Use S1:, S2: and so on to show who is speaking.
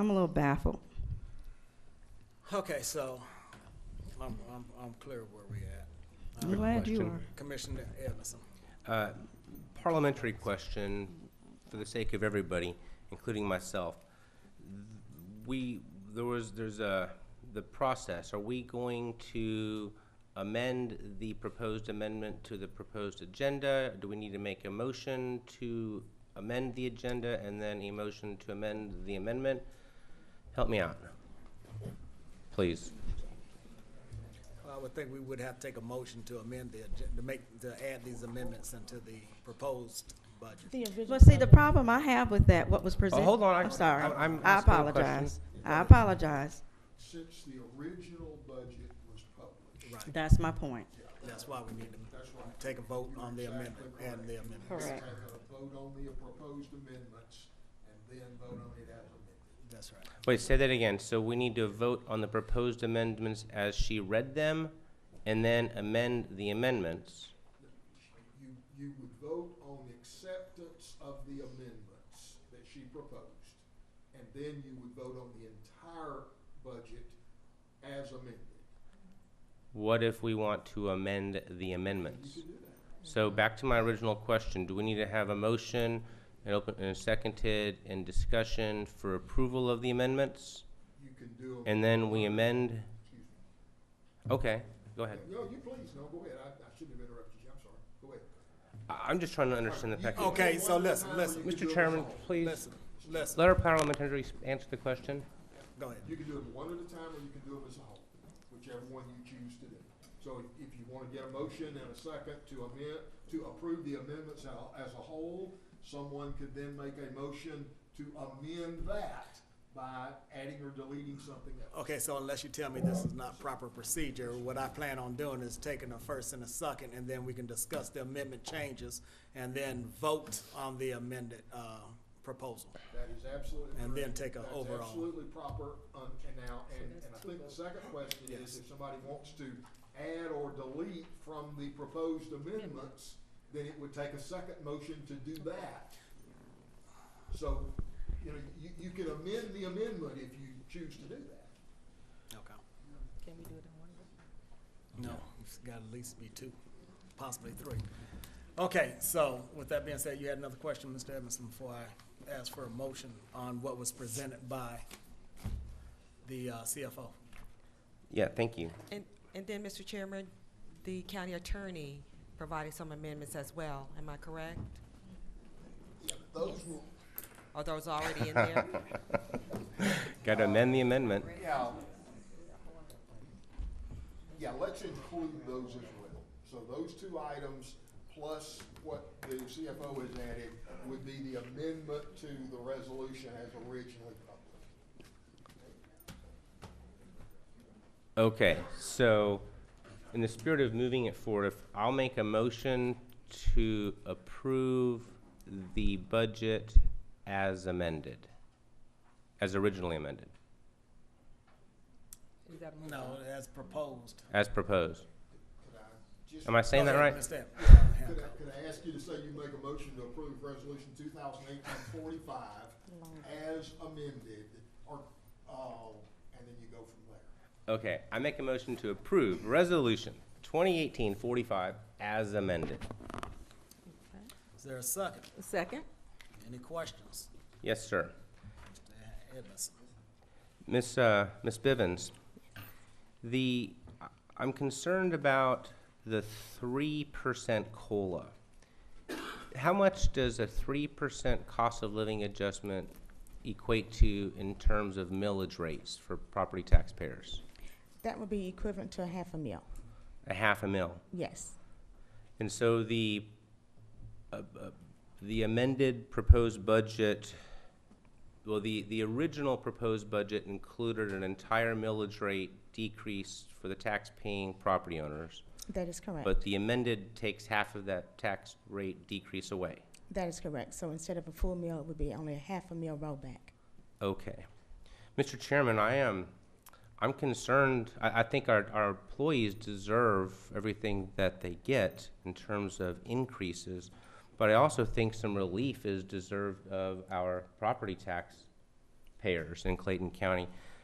S1: I'm a little baffled.
S2: Okay, so I'm, I'm, I'm clear where we at.
S1: I'm glad you
S3: question.
S1: are.
S2: Commissioner Edmondson.
S3: Uh, Parliamentary question, for the sake of everybody, including myself. We, there was, there's a, the process, are we going to amend the proposed amendment to the proposed agenda? Do we need to make a motion to amend the agenda and then a motion to amend the amendment? Help me out, please.
S2: I would think we would have to take a motion to amend the, agen- to make, to add these amendments into the proposed budget.
S4: The original.
S1: But see, the problem I have with that, what was presented.
S3: Oh, hold on, I-
S1: I'm sorry.
S3: I- I'm
S1: I
S3: asking a question.
S1: apologize. I apologize.
S5: since the original budget was published.
S2: Right,
S1: That's my point.
S2: that's why we need to take a vote on the amendment and the amendments.
S1: Correct.
S5: Have a vote on the proposed amendments and then vote on it as amended.
S2: That's right.
S3: Wait, say that again. So we need to vote on the proposed amendments as she read them and then amend the amendments.
S5: You, you would vote on acceptance of the amendments that she proposed. And then you would vote on the entire budget as amended.
S3: What if we want to amend the amendments?
S5: You could do that.
S3: So back to my original question, do we need to have a motion and open, and seconded and discussion for approval of the amendments?
S5: You can do. 'em-
S3: And then we amend?
S5: Excuse me.
S3: Okay, go ahead.
S5: No, you please, no, go ahead. I, I shouldn't have interrupted you. I'm sorry. Go ahead.
S3: I- I'm just trying to understand the pecking. order.
S2: Okay, so listen, listen,
S3: Mr. Chairman, please,
S2: listen, listen,
S3: let our parliamentary s- answer the question.
S2: go ahead.
S5: You can do them one at a time, or you can do them as a whole, whichever one you choose to do. So if- if you want to get a motion and a second to amend, to approve the amendments al- as a whole, someone could then make a motion to amend that by adding or deleting something else.
S2: Okay, so unless you tell me this is not proper procedure, what I plan on doing is taking a first and a second, and then we can discuss the amendment changes, and then vote on the amended, uh, proposal.
S5: That is absolutely correct.
S2: And then take a
S5: That's
S2: overall.
S5: absolutely proper, um, and now, and, and I think the second question is, if somebody wants to add or delete from the proposed amendments, then it would take a second motion to do that. So, you know, you, you can amend the amendment if you choose to do that.
S2: Okay.
S4: Can we do it in one?
S2: No, it's got to at least be two, possibly three. Okay, so with that being said, you had another question, Mr. Edmondson, before I ask for a motion on what was presented by the uh, CFO.
S3: Yeah, thank you.
S6: And, and then, Mr. Chairman, the county attorney provided some amendments as well, am I correct?
S5: Those will,
S6: Are those already in there?
S3: Got to amend the amendment.
S5: yeah. Yeah, let's include those as well. So those two items, plus what the CFO has added, would be the amendment to the resolution as originally published.
S3: Okay, so in the spirit of moving it forward, if I'll make a motion to approve the budget as amended, as originally amended,
S6: Is that a
S2: No,
S6: motion?
S2: as proposed.
S3: as proposed.
S5: Could I just,
S3: Am I saying that
S2: Go ahead,
S3: right?
S2: Mr. Ed-
S5: could I, could I ask you to say you make a motion to approve Resolution 2018-45 as amended, or, uh, and then you go from there?
S3: Okay, I make a motion to approve resolution 2018-45 as amended.
S2: Is there a second?
S1: Second?
S2: Any questions?
S3: Yes, sir.
S2: Mr. Edmondson.
S3: Miss uh, Miss Bivens, the I- I'm concerned about the three percent cola. How much does a three percent cost of living adjustment equate to in terms of millage rates for property taxpayers?
S7: That would be equivalent to a half a meal,
S3: A half a mil.
S7: yes.
S3: And so the, uh, uh, the amended proposed budget, well, the, the original proposed budget included an entire millage rate decrease for the tax-paying property owners,
S7: That is correct.
S3: but the amended takes half of that tax rate decrease away.
S7: That is correct. So instead of a full meal, it would be only a half a meal rollback.
S3: Okay. Mr. Chairman, I am, I'm concerned, I, I think our, our employees deserve everything that they get in terms of increases, but I also think some relief is deserved of our property tax payers in Clayton County.